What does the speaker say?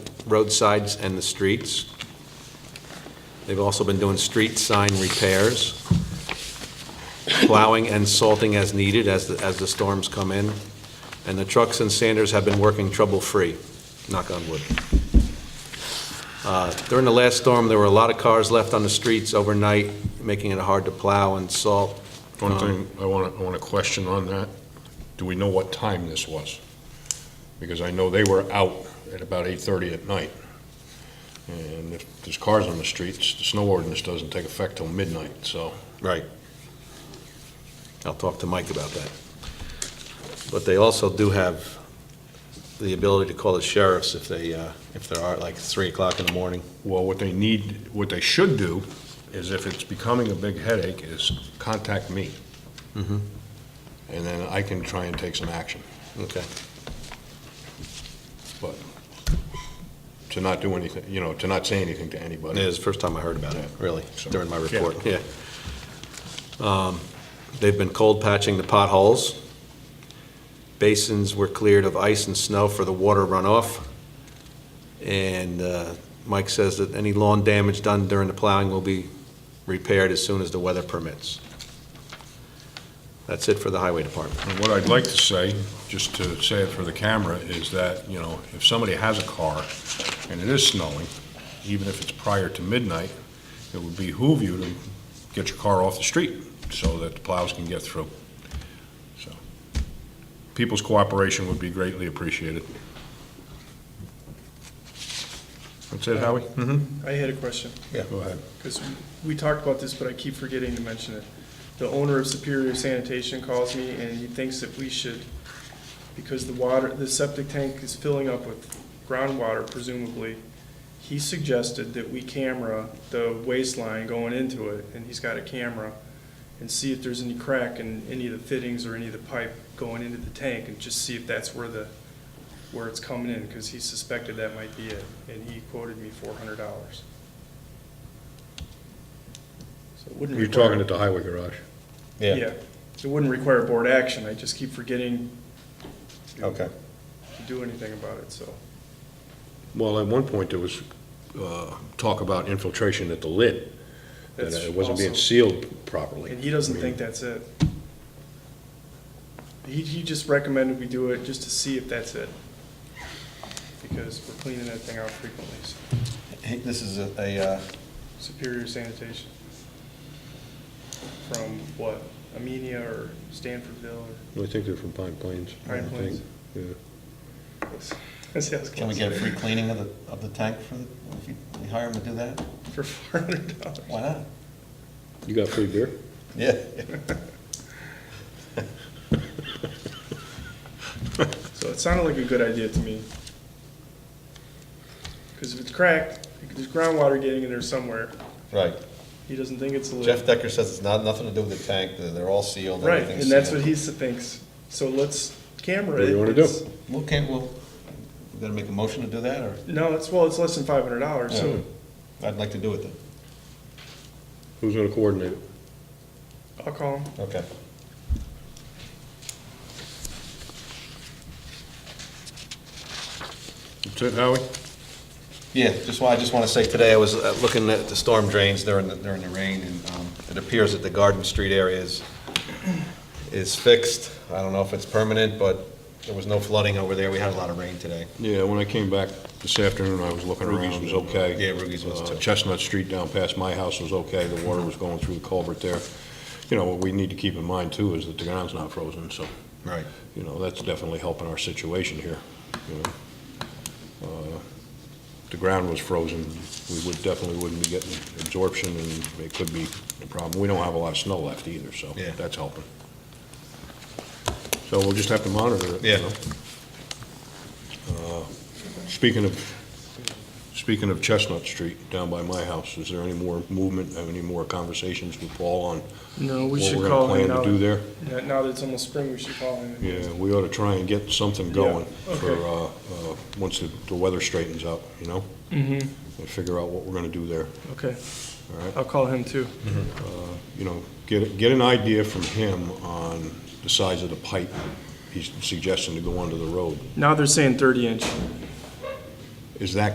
roadsides and the streets. They've also been doing street sign repairs, plowing and salting as needed as, the- as the storms come in. And the trucks and sanders have been working trouble-free, knock on wood. Uh, During the last storm, there were a lot of cars left on the streets overnight, making it hard to plow and salt. One thing, I want to, I want to question on that. Do we know what time this was? Because I know they were out at about 8:30 at night. And if there's cars on the streets, the snow ordinance doesn't take effect till midnight, so. Right. I'll talk to Mike about that. But they also do have the ability to call the sheriffs if they, uh, if there are, like, 3 o'clock in the morning. Well, what they need, what they should do is if it's becoming a big headache, is contact me. And then I can try and take some action. Okay. But to not do anything, you know, to not say anything to It anybody. is the first time I heard about it, really, during my report, Yeah. yeah. Um, They've been cold patching the potholes. Basins were cleared of ice and snow for the water runoff. And uh, Mike says that any lawn damage done during the plowing will be repaired as soon as the weather permits. That's it for the highway department. And What I'd like to say, just to say it for the camera, is that, you know, if somebody has a car and it is snowing, even if it's prior to midnight, it would behoove you to get your car off the street so that the plows can get through. So, People's cooperation would be greatly appreciated. That's it, Howie? I had a question, Go ahead. because we talked about this, but I keep forgetting to mention it. The owner of Superior Sanitation calls me and he thinks that we should, because the water, the septic tank is filling up with groundwater presumably. He suggested that we camera the waistline going into it, and he's got a camera, and see if there's any crack in any of the fittings or any of the pipe going into the tank, and just see if that's where the, where it's coming in, because he suspected that might be it, and he quoted me four hundred dollars. So it wouldn't You're require- talking at the highway garage. Yeah, it wouldn't require board action, I just keep forgetting to- to do anything about it, so. Well, at one point, there was uh, talk about infiltration at the lid, that that's it wasn't being also- sealed properly. And he doesn't I mean- think that's it. He, he just recommended we do it just to see if that's it. Because we're cleaning that thing out frequently, so Hey, This is a- a, uh, Superior Sanitation. From what, Amenia or Stanfordville I think they're from Pine Plains. I Pine Plains. think, yeah. or? That's- that's can we get a close. free cleaning of the, of the tank for, the- if you we hire him to do that? For four hundred dollars. Why not? You got free beer? Yeah. So it sounded like a good idea to me. Because if it's cracked, there's groundwater getting in there somewhere. Right. He doesn't think it's a Jeff leak. Decker says it's not, nothing to do with the tank, they're they're all sealed, Right, everything's and sealed. that's what he s- thinks. So let's camera it. What do you wanna do? It's- Well, can't, well, we gotta make a motion to do that, or, No, it's, well, it's less than five hundred dollars, so I'd like to do it then. Who's gonna coordinate it? I'll call him. Okay. That's it, Howie? Yeah, just, wa- I just want to say, today I was uh, looking at the storm drains during, the- during the rain, and um, it appears that the Garden Street area is, is fixed. I don't know if it's permanent, but there was no flooding over there, we had a lot of rain today. Yeah, when I came back this afternoon, I was looking around, it was okay. Yeah, Rugies was Uh, too. Chestnut Street down past my house was okay, the water was going through the culvert there. You know, what we need to keep in mind too is that the ground's not frozen, so, Right. you know, that's definitely helping our situation here, you know. Uh, If the ground was frozen, we would, definitely wouldn't be getting absorption and it could be a problem. We don't have a lot of snow left either, so Yeah. that's helping. So we'll just have to monitor it, you Yeah. know? Uh, Speaking of, speaking of Chestnut Street down by my house, is there any more movement, have any more conversations with Paul on No, what we're gonna plan to do there? now. Now that it's almost spring, we should call him. Yeah, we ought to try and get something going Yeah, for, okay. uh, uh, once the, the weather straightens up, you know? Mm-hmm, And figure out what we're gonna do there, okay. all right? I'll call him too. you know, get, get an idea from him on the size of the pipe he's suggesting to go under the road. Now they're saying thirty inch. Is that